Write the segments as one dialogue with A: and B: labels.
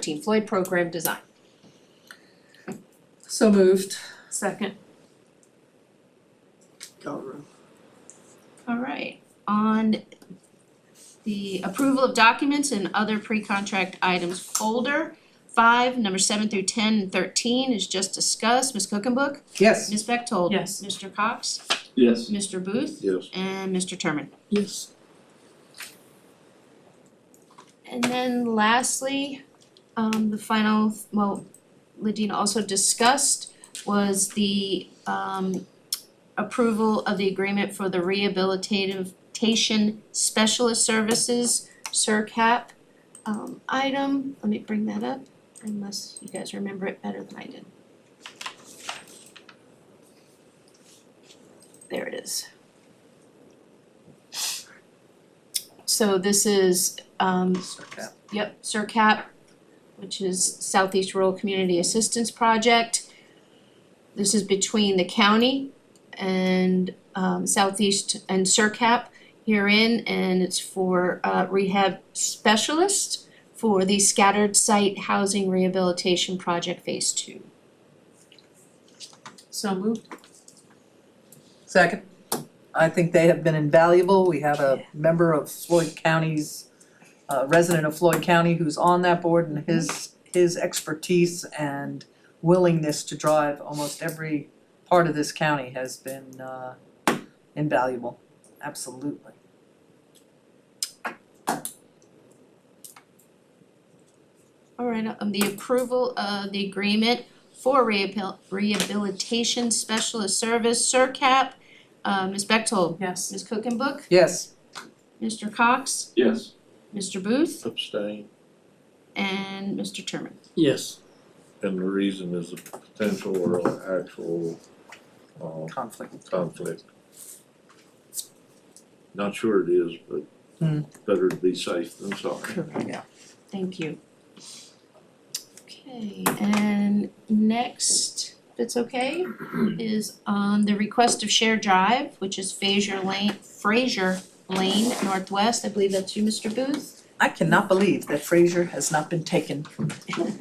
A: Team Floyd program design.
B: So moved.
A: Second.
B: Guru.
A: Alright, on the approval of documents and other pre-contract items folder, five, number seven through ten and thirteen is just discussed, Ms. Cookenbook,
B: Yes.
A: Ms. Bechtold.
C: Yes.
A: Mr. Cox,
D: Yes.
A: Mr. Booth,
D: Yes.
A: and Mr. Turman.
B: Yes.
A: And then lastly, um the final, well, Ladina also discussed was the um approval of the agreement for the rehabilitation specialist services, CERCAP um item, let me bring that up unless you guys remember it better than I did. There it is. So this is um Yep, CERCAP, which is Southeast Rural Community Assistance Project. This is between the county and um Southeast and CERCAP herein, and it's for uh rehab specialist for the scattered site housing rehabilitation project phase two.
C: So moved.
B: Second. I think they have been invaluable. We have a member of Floyd County's, uh, resident of Floyd County who's on that board and his, his expertise and willingness to drive almost every part of this county has been, uh, invaluable. Absolutely.
A: Alright, um the approval of the agreement for rehabil- rehabilitation specialist service, CERCAP. Uh Ms. Bechtold,
C: Yes.
A: Ms. Cookenbook,
B: Yes.
A: Mr. Cox,
D: Yes.
A: Mr. Booth,
D: Abstain.
A: and Mr. Turman.
E: Yes,
D: And the reason is a potential or a actual uh
B: Conflict.
D: conflict. Not sure it is,
B: Hmm.
D: but better to be safe than sorry.
B: Yeah.
A: Thank you. Okay, and next, if it's okay, is on the request of Share Drive, which is Fraser Lane, Fraser Lane Northwest. I believe that's you, Mr. Booth.
B: I cannot believe that Fraser has not been taken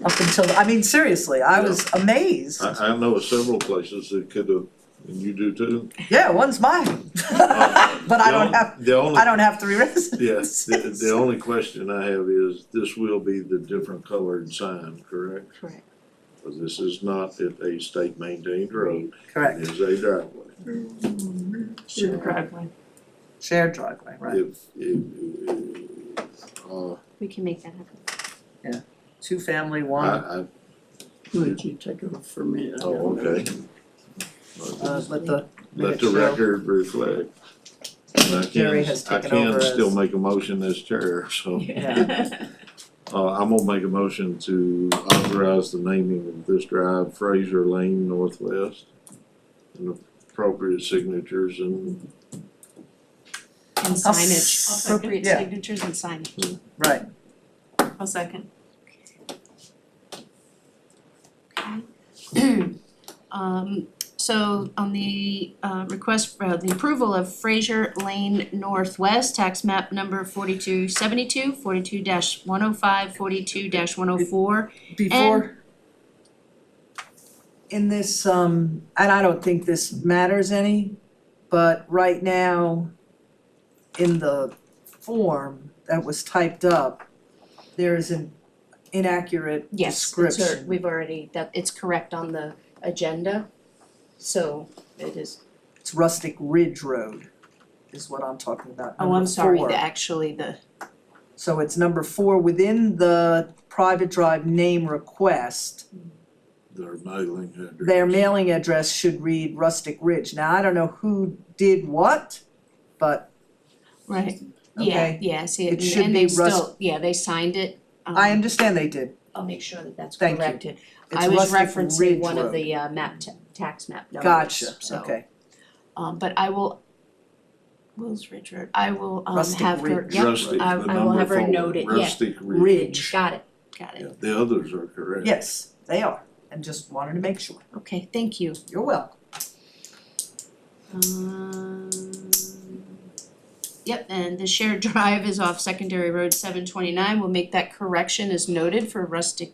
B: up until, I mean, seriously, I was amazed.
D: I I know of several places that could have, and you do too.
B: Yeah, one's mine. But I don't have,
D: The only,
B: I don't have three
D: yes,
B: residences.
D: the the only question I have is this will be the different colored sign, correct?
A: Correct.
D: Because this is not at a state maintained road, it
B: Correct,
D: is a driveway.
C: To the driveway.
B: shared driveway, right,
D: If, if, uh,
A: We can make that happen.
B: two family,
D: I,
B: one,
D: I,
E: would you take it for me? I
D: oh,
E: don't know.
D: okay.
B: uh, let the,
D: Let the record reflect. And I
B: Jerry
D: can,
B: has
D: I
B: taken over
D: can
B: as-
D: still make a motion as chair, so, uh, I'm gonna make a motion to authorize the naming of this drive Fraser Lane Northwest. And appropriate signatures and,
A: And
B: I'll
A: signage,
C: s-
A: appropriate
B: yeah.
A: signatures and signage.
B: right,
C: I'll second.
A: Um so on the uh request for the approval of Fraser Lane Northwest tax map number forty-two seventy-two, forty-two dash one oh five, forty-two dash one oh four.
B: before. In this, um, and I don't think this matters any, but right now, in the form that was typed up, there is an inaccurate
A: Yes,
B: description.
A: that's our- we've already, that it's correct on the agenda, so it is,
B: It's rustic ridge road is what I'm talking about,
A: oh, I'm
B: number
A: sorry,
B: four.
A: the actually the,
B: So it's number four, within the private drive name request,
D: their mailing address.
B: their mailing address should read Rustic Ridge. Now, I don't know who did what, but
A: right, yeah,
B: Okay.
A: yeah, see,
B: It
A: and
B: should
A: and
B: be
A: they
B: rus-
A: still, yeah, they signed it.
B: I
A: um,
B: understand they did.
A: I'll make sure that that's
B: Thank you.
A: corrected.
B: It's
A: I was
B: Rustic
A: referencing
B: Ridge
A: one of
B: Road.
A: the uh map, ta- tax map numbers,
B: Gotcha,
A: so.
B: okay.
A: Um but I will, Will's Richard, I will um
B: Rustic
A: have her,
B: Ridge.
A: yep,
D: Rustic,
A: I-
D: the
A: I will have
D: number
A: her
D: four,
A: note it, yeah.
D: Rustic Ridge.
B: Ridge,
A: got it, got
D: Yeah,
A: it.
D: the others are correct.
B: yes, they are, and just wanted to make sure.
A: Okay, thank you.
B: You're welcome.
A: Um Yep, and the shared drive is off Secondary Road seven twenty-nine, we'll make that correction as noted for rustic